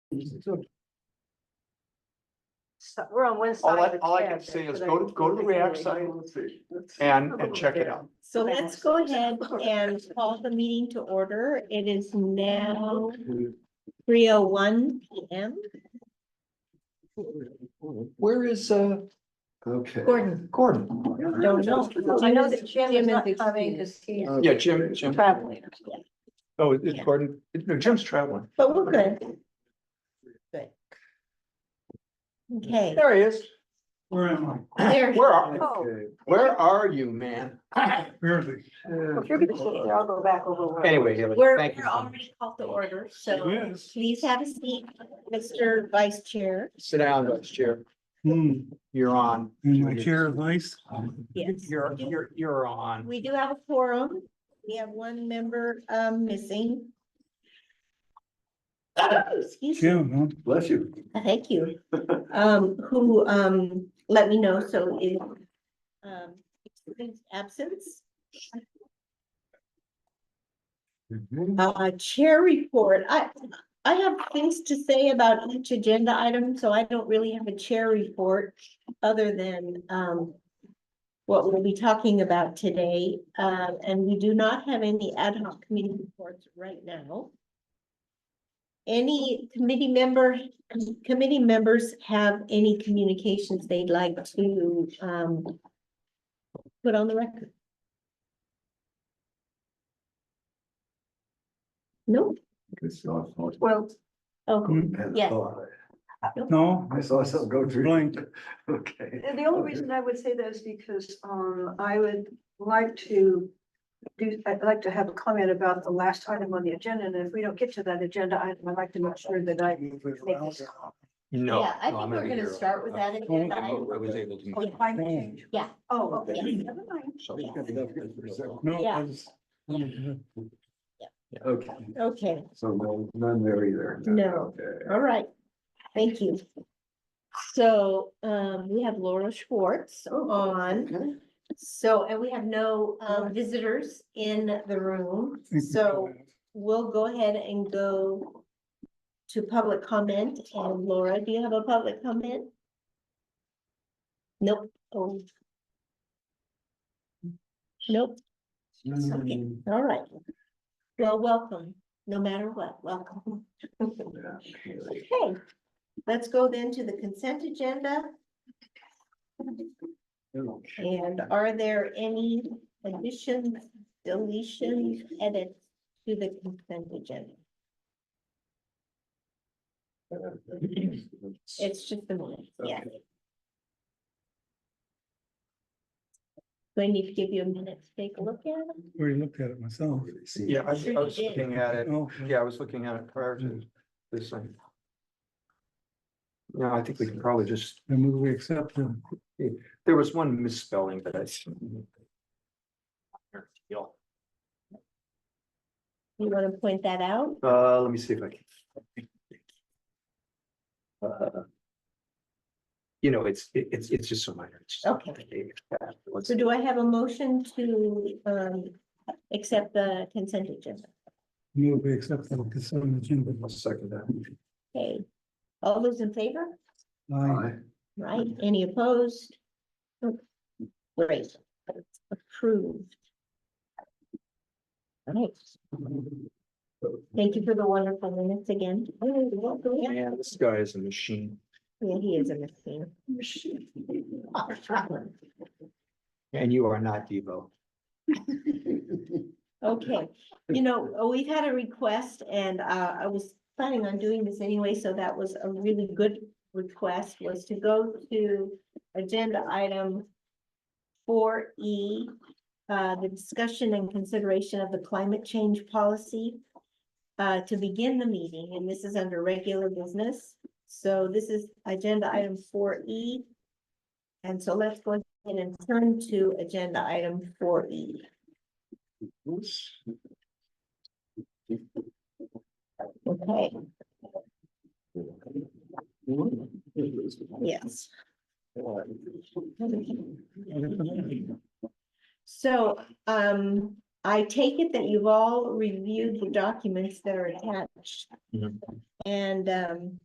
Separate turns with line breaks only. So we're on one side
All
of
I,
the.
all I
tab
can
there,
say is
but
go to, go to the
quickly
React site and, and check it out.
So let's go ahead and call the meeting to order. It is now three oh one P M.
Where is, uh? Okay. Gordon. Gordon.
Don't know.
I know that Jim is
Jim is
not coming because he's
Yeah, Jim, Jim.
traveling.
Oh, it's Gordon. No, Jim's traveling.
But we're good. Good. Okay,
There he is.
Where am
there,
Where are,
Oh,
where are you, man?
I? Barely.
if you're gonna sit there, I'll go back over. where-
Anyway, Haley,
we're,
thank you.
we're already called to order, so
Yes.
please have a seat, Mr. Vice Chair.
Sit down, Vice Chair.
Hmm,
You're on.
and my chair is nice.
Yes.
You're, you're, you're on.
We do have a forum. We have one member um missing. Excuse me.
Jim, huh?
Bless you.
Thank you. Um, who um let me know, so if um excuse absence, uh chair report. I I have things to say about each agenda item, so I don't really have a chair report other than um what we'll be talking about today, um, and we do not have any ad hoc committee reports right now. Any committee member, committee members have any communications they'd like to, um, put on the record? Nope,
Well,
oh, yes.
No,
I saw something go through.
Blank.
Okay.
the only reason I would say that is because um I would like to do, I'd like to have a comment about the last item on the agenda, and if we don't get to that agenda item, I'd like to make sure that I make this call.
No.
Yeah, I
no, I'm
think we're
be
gonna
here. Uh,
start with that. agenda
I
item.
was able to.
Oh, climate change.
Yeah.
Oh, okay, never mind.
So-
no.
Yeah.
I was-
Okay,
Okay,
so no, none there either.
No.
Okay.
all right, thank you. So, um, we have Laura Schwartz on,
Okay.
so, and we have no, um, visitors in the room, so we'll go ahead and go to public comment. And Laura, do you have a public comment? Nope. Oh. Nope, okay, all right. Well, welcome, no matter what, welcome. Okay, let's go then to the consent agenda. And are there any additions, deletions, edits to the consent agenda? It's just the one, yeah. Do I need to give you a minute to take a look at it?
Already looked at it myself.
Yeah, I was I was
Sure you did.
looking at it.
Oh,
Yeah, I was looking at it prior to this thing. Yeah, I think we can probably just,
I move we accept the
there was one misspelling that I. s-
You want to point that out?
Uh, let me see if I can. Uh, You know, it's, it- it's, it's just so minor. It's just-
Okay. So do I have a motion to um accept the consent agenda?
move we accept the consent agenda.
I'll second that.
Okay, all those in favor?
Aye.
Right, any opposed? Great, That's approved. All right. Thank you for the wonderful minutes again. Oh, you're welcome. Yeah,
Man, this guy is a machine.
Yeah, he is a machine.
And you are not Devo.
Okay, you know, uh, we've had a request and uh, I was planning on doing this anyway, so that was a really good request was to go to agenda item four E, uh, the discussion and consideration of the climate change policy uh, to begin the meeting, and this is under regular business. So this is agenda item four E. And so let's go ahead and turn to agenda item four E. Okay, yes. So, um, I take it that you've all reviewed the documents that are attached.
Mhm.
And, um,